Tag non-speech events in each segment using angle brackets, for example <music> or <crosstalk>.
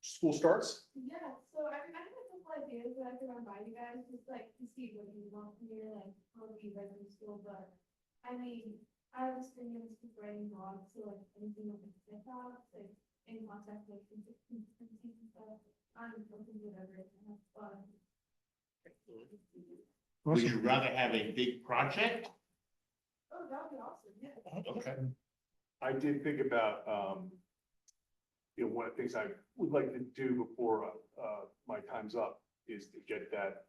school starts. Yeah, so I mean, I have a couple ideas that I could run by you guys, just like to see what you want from here, like, how do you guys in school, but. I mean, I have experience with writing blogs, so like anything on TikTok, like in contact with consultants and stuff. I'm open to whatever, I have fun. Would you rather have a big project? Oh, that would be awesome, yeah. Okay. I did think about, um, you know, one of the things I would like to do before, uh, uh, my time's up is to get that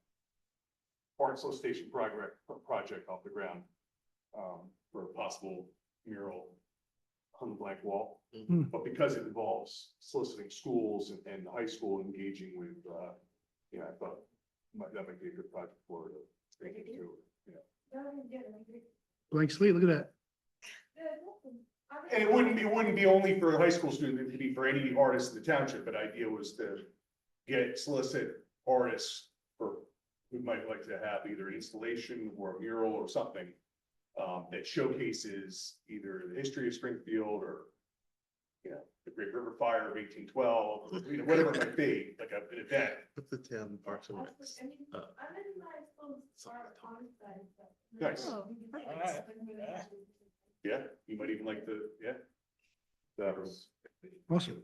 Barnstable Station project, project off the ground, um, for a possible mural on the blank wall. Hmm. But because it involves soliciting schools and, and the high school engaging with, uh, you know, I thought might, that might be a good project for, uh, thinking through, you know. That would be good, I agree. Blank slate, look at that. Yeah, it's awesome. I mean- And it wouldn't be, it wouldn't be only for a high school student, it could be for any artist in the township, but idea was to get solicit artists for, who might like to have either an installation or a mural or something um, that showcases either the history of Springfield or you know, the Great River Fire of eighteen twelve, you know, whatever it might be, like a- an event. Put the town parks and That's recs. what- I mean, Uh, I'm in my school something art to talk on side, but. Nice. Oh, perfect. Yeah, you might even like the, yeah. That was, Awesome.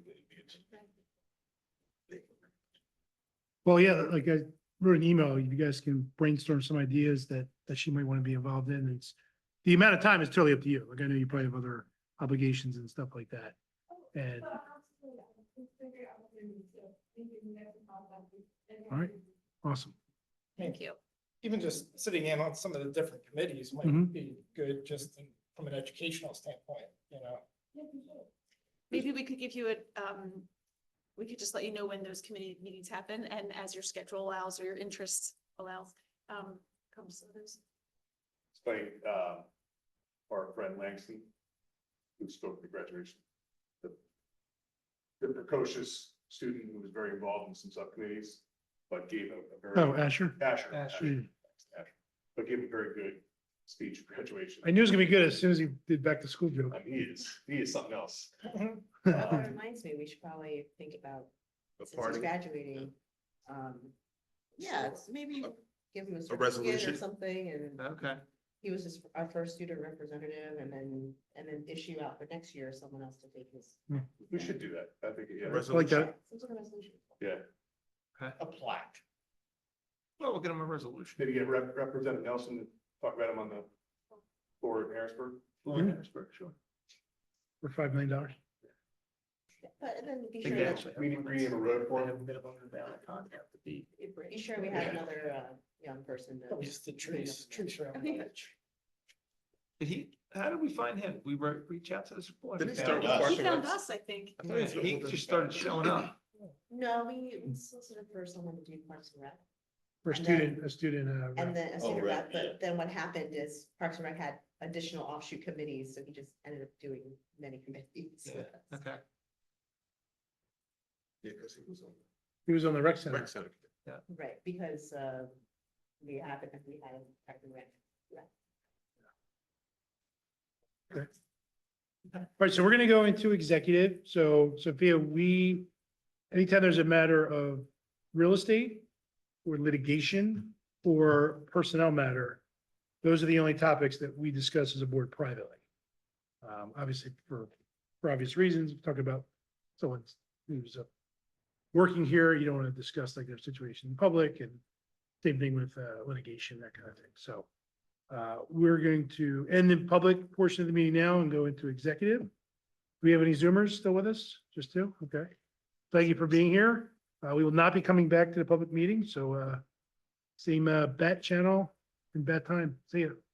Well, yeah, like I wrote an email, you guys can brainstorm some ideas that, that she might want to be involved in. It's, the amount of time is totally up to you. Like I know you probably have other obligations and stuff like that. And- All right. Awesome. Thank you. even just sitting in on some of the different committees Mhm. might be good, just in- from an educational standpoint, you know? Maybe we could give you a, um, we could just let you know when those committee meetings happen and as your schedule allows or your interest allows, um, comes to those. it's by, uh, our friend Langston, who spoke at the graduation. The the precocious student who was very involved in some subcommittees, but gave a a very. Oh, Asher? Asher. Asher. Mm. Asher. But gave a very good speech at graduation. I knew it was gonna be good as soon as he did back to school joke. Um, He is, he is something <laughs> else. That Um, reminds me, we should probably think about, A since he's party, graduating, um, yeah, it's maybe A- give him a certificate resolution? or something, and okay. he was his, our first student representative, and then, and then issue out for next year, someone else to take his. We should do that. I think, yeah, I like that. Some sort of resolution. yeah. A plaque. Well, we'll get him a resolution. Maybe get Rep- Representative Nelson, to talk about him on the board in Harrisburg. Mhm. Harrisburg, sure. For five million dollars. But and then be sure, Again, that- meeting, meeting a road for him. be sure we had Yeah. another, uh, young person to. Probably just the trees, trees around. Okay. the Did he, how did we find him? We re- reach out to the support. Didn't he start found with us. He parks and found recs? us, I think. I thought Yeah, He just started showing up. <laughs> No, we solicited for someone to do Parks and Rec, For a And then- student, a student, uh, rep. and then a Oh, student right, rep, but then what happened is Parks and Rec had additional offshoot committees, so he just ended up doing many committees. Yeah. Okay. Yeah, because he was on he was on the rec the center. rec center. Right, because uh, we haven't, we haven't practically rent. All right, so we're gonna go into executive. So Sophia, we, anytime there's a matter of real estate or litigation or personnel matter, those are the only topics that we discuss as a board privately. Um, obviously for, for obvious reasons, we're talking about someone who's uh, working here, you don't want to discuss like their situation in public and same thing with uh, litigation, that kind of thing. So uh, we're going to end the public portion of the meeting now and go into executive. Do we have any Zoomers still with us? Just two? Okay. Thank you for being here. Uh, we will not be coming back to the public meeting, so, uh, same, uh, bat channel and bat time. See you.